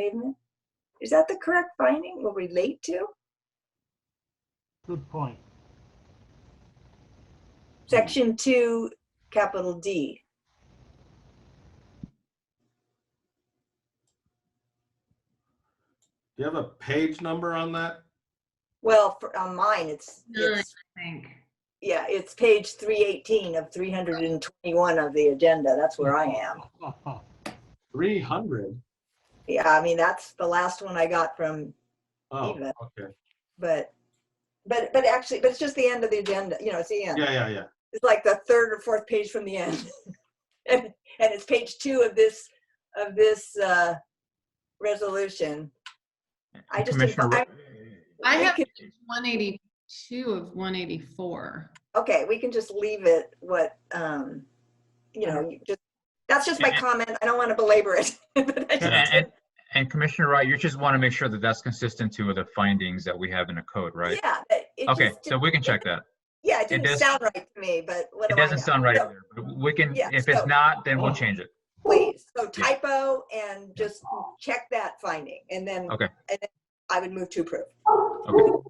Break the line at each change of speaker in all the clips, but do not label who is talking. pavement? Is that the correct finding will relate to?
Good point.
Section two, capital D.
Do you have a page number on that?
Well, for, on mine, it's,
Nine,
it's,
I think.
yeah, it's page three eighteen of three hundred and twenty-one of the agenda. That's where I am.
Three hundred?
Yeah, I mean, that's the last one I got from
Oh,
Eva.
okay.
But, but, but actually, but it's just the end of the agenda, you know, it's the end.
Yeah, yeah, yeah.
It's like the third or fourth page from the end. And, and it's page two of this, of this, uh, resolution. I just,
Commissioner,
I-
I
we
have
could-
182 of 184.
Okay, we can just leave it what, um, you know, you just, that's just my
Yeah.
comment. I don't want to belabor it. but I
and-
just-
and- And Commissioner Wright, you just want to make sure that that's consistent to the findings that we have in the code, right?
Yeah. but it
Okay,
just
so we can check that.
Yeah, it
it
didn't
does-
sound right to me, but what do I
It
know?
doesn't sound right
So,
either. but We can,
Yeah,
if it's
so-
not, then we'll change it.
Please, so typo and just check that finding and then.
Okay.
and then I would move to approve.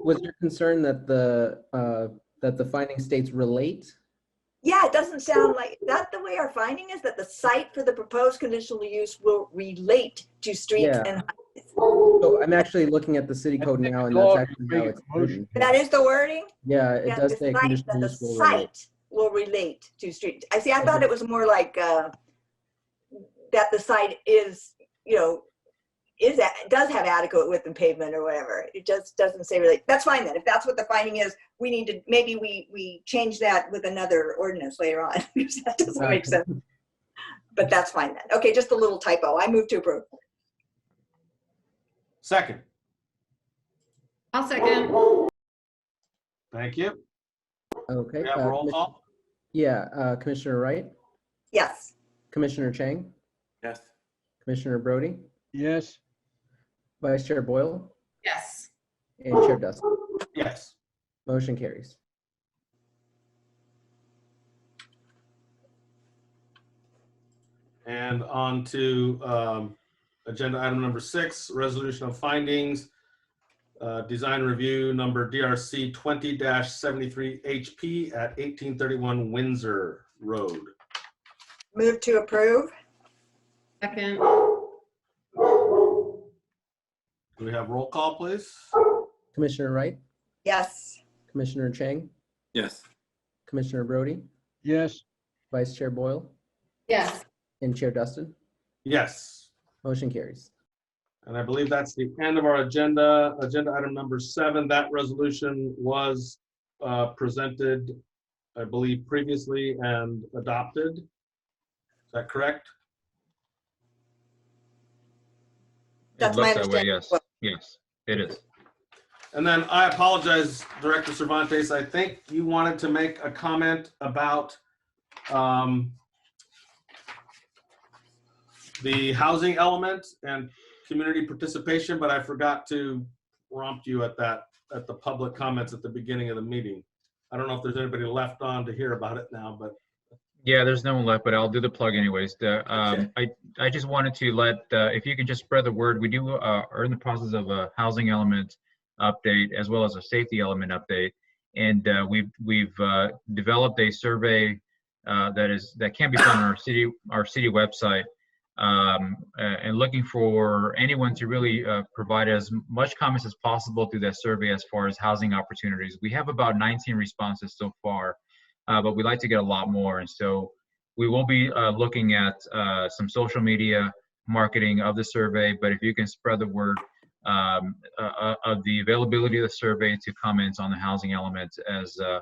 Was your concern that the, uh, that the finding states relate?
Yeah, it doesn't sound like, is that the way our finding is that the site for the proposed conditional use will relate to streets
Yeah.
and,
So I'm actually looking at the city code now and that's actually how it's written.
that is the wording?
Yeah, it
Yeah,
does
the
say
site-
conditional
that
use
The
will relate.
site will relate to street. I see, I thought it was more like, uh, that the site is, you know, is, a- does have adequate width and pavement or whatever. It just doesn't say relate. That's fine then. If that's what the finding is, we need to, maybe we, we change that with another ordinance later on. because That doesn't make sense. But that's fine then. Okay, just a little typo. I move to approve.
Second,
I'll second.
thank you.
Okay.
We have
uh,
roll
Commis-
call?
Yeah, uh, Commissioner Wright,
Yes.
Commissioner Chang,
Yes.
Commissioner Brody,
Yes,
Vice Chair Boyle,
Yes.
and Chair Dustin.
Yes.
Motion carries.
And on to um, agenda item number six, resolution of findings, uh, design review number DRC 20-73 HP at 1831 Windsor Road.
Move to approve.
Second.
Do we have roll call, please?
Commissioner Wright,
Yes.
Commissioner Chang,
Yes.
Commissioner Brody,
yes,
Vice Chair Boyle,
Yes.
and Chair Dustin.
Yes.
Motion carries.
And I believe that's the end of our agenda. Agenda item number seven, that resolution was uh, presented, I believe, previously and adopted. Is that correct?
It
That's
looks
my
that way,
understanding.
Yes, yes, it is.
And then I apologize, Director Cervantes, I think you wanted to make a comment about um, the housing element and community participation, but I forgot to prompt you at that, at the public comments at the beginning of the meeting. I don't know if there's anybody left on to hear about it now, but
Yeah, there's no one left, but I'll do the plug anyways. The, um, I, I just wanted to let, uh, if you can just spread the word, we do, uh, are in the process of a housing element update as well as a safety element update. And, uh, we've, we've, uh, developed a survey, uh, that is, that can be found on our city, our city website. Um, uh, and looking for anyone to really, uh, provide as much comments as possible through that survey as far as housing opportunities. We have about 19 responses so far uh, but we'd like to get a lot more. And so we will be uh, looking at uh, some social media marketing of the survey. But if you can spread the word um, uh, uh, of the availability of the survey to comments on the housing element, as uh,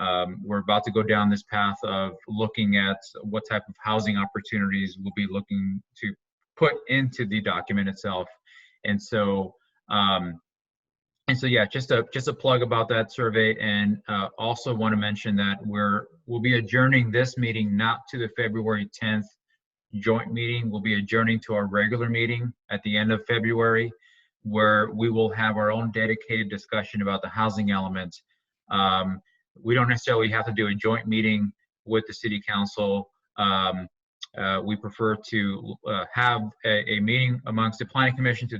um, we're about to go down this path of looking at what type of housing opportunities we'll be looking to put into the document itself. And so um, and so, yeah, just a, just a plug about that survey and uh, also want to mention that we're, we'll be adjourning this meeting, not to the February 10th joint meeting. We'll be adjourning to our regular meeting at the end of February where we will have our own dedicated discussion about the housing element. Um, We don't necessarily have to do a joint meeting with the city council. Um, uh, we prefer to uh, have a, a meeting amongst the planning commission to